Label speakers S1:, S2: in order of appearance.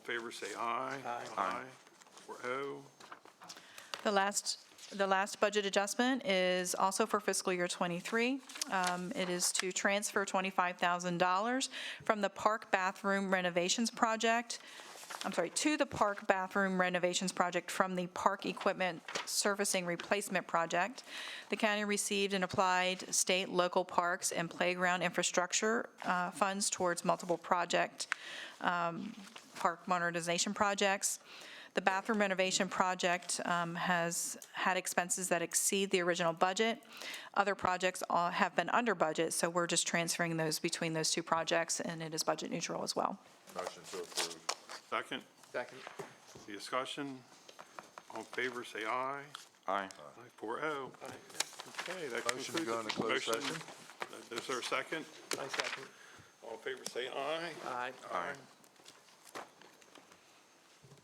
S1: favor say aye.
S2: Aye.
S1: Aye. Or oh.
S3: The last, the last budget adjustment is also for fiscal year '23. It is to transfer $25,000 from the park bathroom renovations project, I'm sorry, to the park bathroom renovations project from the park equipment surfacing replacement project. The county received and applied state, local parks, and playground infrastructure uh, funds towards multiple project um, park modernization projects. The bathroom renovation project um, has had expenses that exceed the original budget. Other projects all- have been under budget, so we're just transferring those between those two projects, and it is budget neutral as well.
S4: Motion to approve.
S1: Second,
S2: Second.
S1: the discussion, all in favor say aye.
S4: Aye.
S1: Aye, four oh. Okay, that concludes.
S4: Motion to go into closed
S1: motion.
S4: session.
S1: Is there a second?
S2: I second.
S1: All in favor say aye.
S2: Aye.
S4: Aye.